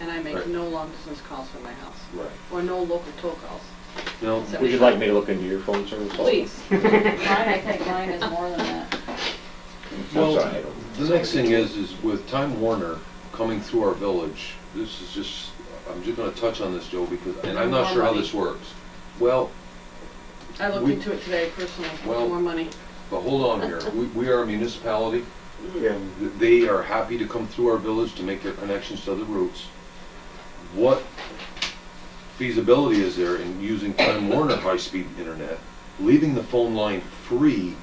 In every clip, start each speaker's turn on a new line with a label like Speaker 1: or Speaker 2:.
Speaker 1: and I make
Speaker 2: Right.
Speaker 1: no long distance calls from my house.
Speaker 2: Right.
Speaker 1: Or no local toll calls.
Speaker 2: No,
Speaker 1: So-
Speaker 2: would you like me to look into your phone service?
Speaker 3: Oh.
Speaker 2: also?
Speaker 1: Please. Mine, I think mine is more than that.
Speaker 2: I'm
Speaker 3: Well,
Speaker 2: sorry, I don't-
Speaker 3: the next thing is, is with Time Warner coming through our village, this is just, I'm just gonna touch on this, Joe, because, and I'm not sure how this works. Well,
Speaker 1: I looked
Speaker 3: We-
Speaker 1: into it today personally, for
Speaker 3: Well-
Speaker 1: more money.
Speaker 3: but hold on here, we, we are a municipality,
Speaker 2: Yeah.
Speaker 3: Th- they are happy to come through our village to make their connections to other routes. What feasibility is there in using Time Warner high-speed internet, leaving the phone line free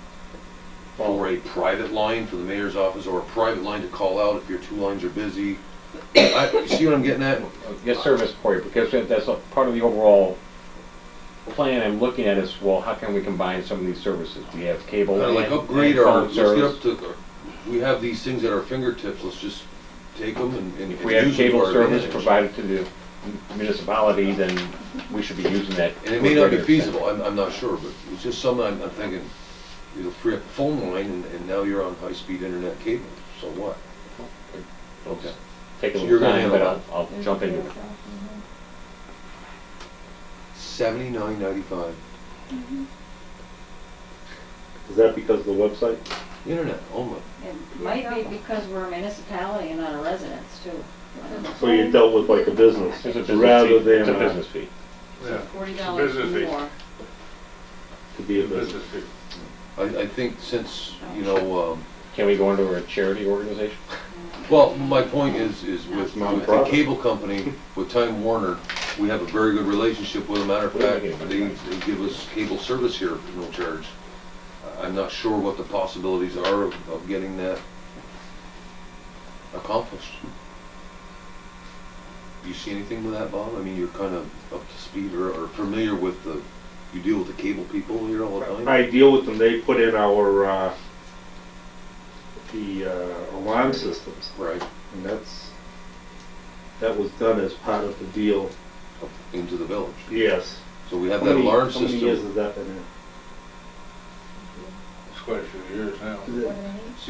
Speaker 3: for a private line for the mayor's office or a private line to call out if your two lines are busy? I, you see what I'm getting at?
Speaker 2: uh, Get service for you, because that- that's a part of the overall plan I'm looking at is, well, how can we combine some of these services? We have cable
Speaker 3: Kinda
Speaker 2: and
Speaker 3: Uh, like
Speaker 2: and
Speaker 3: upgrade our,
Speaker 2: Oh, phone
Speaker 3: let's get
Speaker 2: service.
Speaker 3: up to, we have these things at our fingertips, let's just take them and, and
Speaker 2: If
Speaker 3: and
Speaker 2: we have
Speaker 3: use them to
Speaker 2: cable
Speaker 3: our
Speaker 2: service
Speaker 3: advantage.
Speaker 2: provided to the municipality, then we should be using that.
Speaker 3: And it may
Speaker 2: to a
Speaker 3: not be
Speaker 2: greater extent.
Speaker 3: feasible, I'm, I'm not sure, but it's just something I'm, I'm thinking, you'll free up the phone line and, and now you're on high-speed internet cable, so what?
Speaker 2: It'll just Take a
Speaker 3: So you're
Speaker 2: little
Speaker 3: gonna
Speaker 2: time, but I'll,
Speaker 3: handle
Speaker 2: I'll jump into it.
Speaker 3: Seventy-nine ninety-five,
Speaker 4: Is that because of the website?
Speaker 3: internet only.
Speaker 5: It might be because we're a municipality and not a residence too.
Speaker 4: So you dealt with like a business,
Speaker 2: It's a business
Speaker 4: rather
Speaker 2: fee. It's a
Speaker 4: than uh,
Speaker 2: business fee.
Speaker 1: So
Speaker 6: Yeah.
Speaker 1: forty
Speaker 6: It's a
Speaker 1: dollars
Speaker 6: business fee.
Speaker 1: more.
Speaker 4: to be a business.
Speaker 6: Business fee.
Speaker 3: I, I think since, you know, um,
Speaker 2: Can we go into a charity organization?
Speaker 3: Well, my point is, is with, with the
Speaker 4: Nonprofit.
Speaker 3: cable company, with Time Warner, we have a very good relationship with them. Matter of fact, they, they give us cable service here for no charge. I'm not sure what the possibilities are of, of getting that accomplished. Do you see anything with that, Bob? I mean, you're kind of up to speed or, or familiar with the, you deal with the cable people here all the time?
Speaker 4: I deal with them, they put in our, uh, the uh, alarm systems,
Speaker 3: Right,
Speaker 4: and that's, that was done as part of the deal.
Speaker 3: up into the village.
Speaker 4: Yes.
Speaker 3: So we have
Speaker 4: How
Speaker 3: that
Speaker 4: many-
Speaker 3: alarm
Speaker 4: How many years
Speaker 3: system.
Speaker 4: has that been in?
Speaker 6: It's quite a few years now.
Speaker 3: See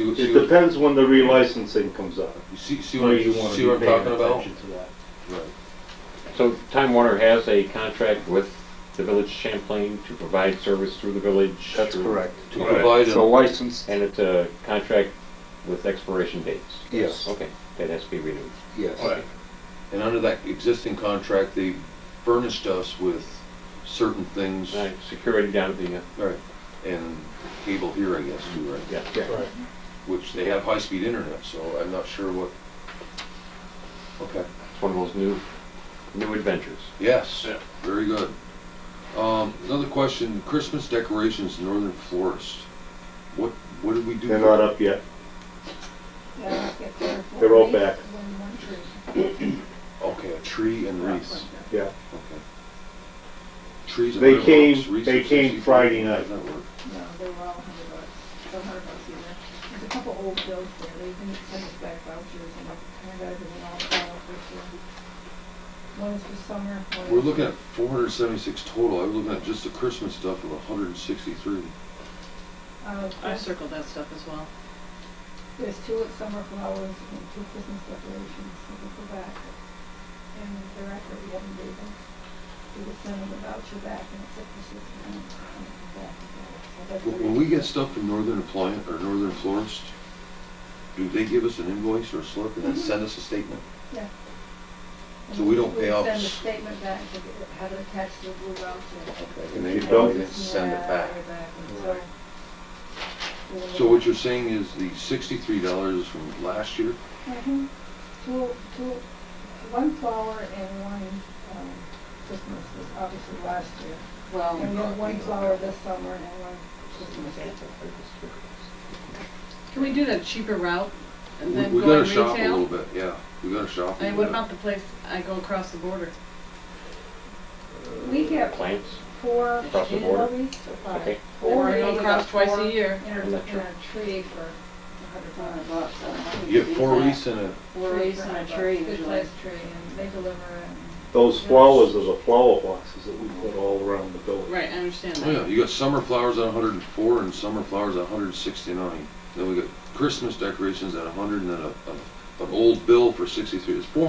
Speaker 3: what- see
Speaker 4: It
Speaker 3: what-
Speaker 4: depends when the relicensing comes up.
Speaker 3: You see, see
Speaker 4: So
Speaker 3: what,
Speaker 4: you wanna
Speaker 3: see
Speaker 4: be
Speaker 3: what I'm
Speaker 4: paying
Speaker 3: talking about?
Speaker 4: attention to that.
Speaker 3: Right.
Speaker 2: So Time Warner has a contract with the Village of Champlain to provide service through the village.
Speaker 4: That's
Speaker 2: through-
Speaker 4: correct.
Speaker 3: To
Speaker 6: Right.
Speaker 3: provide
Speaker 4: So
Speaker 3: them,
Speaker 4: licensed.
Speaker 2: And it's a contract with expiration dates.
Speaker 3: yes,
Speaker 2: Okay, that has to be renewed.
Speaker 3: yes.
Speaker 6: Right.
Speaker 3: And under that existing contract, they furnished us with certain things.
Speaker 2: All right, security down at the, uh,
Speaker 3: Right. And cable here, I guess, too, right?
Speaker 2: yeah.
Speaker 4: Right.
Speaker 3: Which they have high-speed internet, so I'm not sure what. Okay,
Speaker 2: It's one of those new, new adventures.
Speaker 3: yes,
Speaker 6: Yeah.
Speaker 3: very good. Um, another question, Christmas decorations, in Northern Florist. What, what did we do?
Speaker 4: They're not up yet. They're all back.
Speaker 3: Okay, a tree and wreaths.
Speaker 4: Yeah.
Speaker 3: Okay. Trees and
Speaker 4: They
Speaker 3: rocks,
Speaker 4: came-
Speaker 3: wreaths
Speaker 4: they
Speaker 3: and
Speaker 4: came
Speaker 3: sixty-four.
Speaker 4: Friday night.
Speaker 3: That worked.
Speaker 7: No, they were all a hundred bucks, so a hundred bucks either. There's a couple old bills there, they didn't send us back vouchers, and I turned everything all filed for sure. One is for summer, Uh, one is.
Speaker 3: We're looking at four hundred seventy-six total, I was looking at just the Christmas stuff of hundred and sixty-three.
Speaker 7: Uh,
Speaker 1: I
Speaker 7: there's-
Speaker 1: circled that stuff as well.
Speaker 7: there's two at summer flowers and two Christmas decorations, so they go back. And thereafter, we haven't paid them. We would send them a voucher back, and it's up to six months, and it's back and forth. So that's what
Speaker 3: When we get stuff from Northern Appliance, or Northern Florist, do they give us an invoice or a slip and then send us a statement? so we don't pay off
Speaker 7: We send the
Speaker 3: s-
Speaker 7: statement back, to get- have it attached to a blue voucher.
Speaker 3: And they
Speaker 4: They
Speaker 3: don't
Speaker 4: don't.
Speaker 3: even send it back. So
Speaker 7: So
Speaker 3: what you're saying is the sixty-three dollars is from last year?
Speaker 7: Two, Mm-hmm. two, one flower and one um, Christmas was obviously last year.
Speaker 2: Oh,
Speaker 7: And
Speaker 1: Well,
Speaker 7: we have one flower this summer and one Christmas.
Speaker 1: can we do that cheaper route
Speaker 3: We
Speaker 1: and then
Speaker 3: we
Speaker 1: go
Speaker 3: gotta
Speaker 1: in
Speaker 3: shop a little
Speaker 1: retail?
Speaker 3: bit, yeah, we gotta shop a
Speaker 1: And what
Speaker 3: little
Speaker 1: about
Speaker 3: bit.
Speaker 1: the place I go across the border?
Speaker 7: We have
Speaker 2: Plants,
Speaker 7: four
Speaker 2: Across the border?
Speaker 7: lilies or
Speaker 2: okay.
Speaker 7: five.
Speaker 1: Or I
Speaker 7: Lily
Speaker 1: go
Speaker 7: is
Speaker 1: across
Speaker 7: about
Speaker 1: twice
Speaker 7: four
Speaker 1: a year.
Speaker 7: And
Speaker 2: I'm
Speaker 7: a and a
Speaker 2: not sure.
Speaker 7: tree for a hundred dollars.
Speaker 3: You get four wreaths and a,
Speaker 1: Four wreaths and a tree usually.
Speaker 7: Good-sized tree, and they deliver it.
Speaker 4: Those flowers are the flower boxes that we put all around the building.
Speaker 1: Right, I understand
Speaker 3: oh yeah,
Speaker 1: that.
Speaker 3: you got summer flowers at hundred and four and summer flowers at hundred and sixty-nine. Then we got Christmas decorations at hundred and then a, a, an old bill for sixty-three, it's four